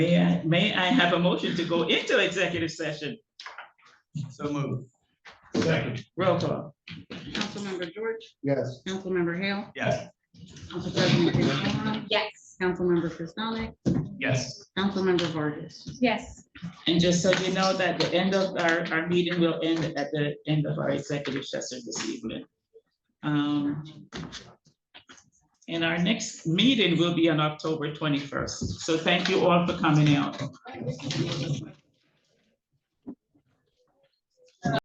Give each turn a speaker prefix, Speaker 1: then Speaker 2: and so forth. Speaker 1: May I have a motion to go into executive session?
Speaker 2: So moved. Second.
Speaker 1: Roll call.
Speaker 3: Councilmember George,
Speaker 2: Yes.
Speaker 3: Councilmember Hale,
Speaker 2: Yes.
Speaker 3: Council President Chris Cowan,
Speaker 4: Yes.
Speaker 3: Councilmember Pistonik,
Speaker 2: Yes.
Speaker 3: Councilmember Vargas.
Speaker 4: Yes.
Speaker 1: And just so you know that the end of our, our meeting will end at the end of our executive session this evening. Um, And our next meeting will be on October twenty-first. So thank you all for coming out.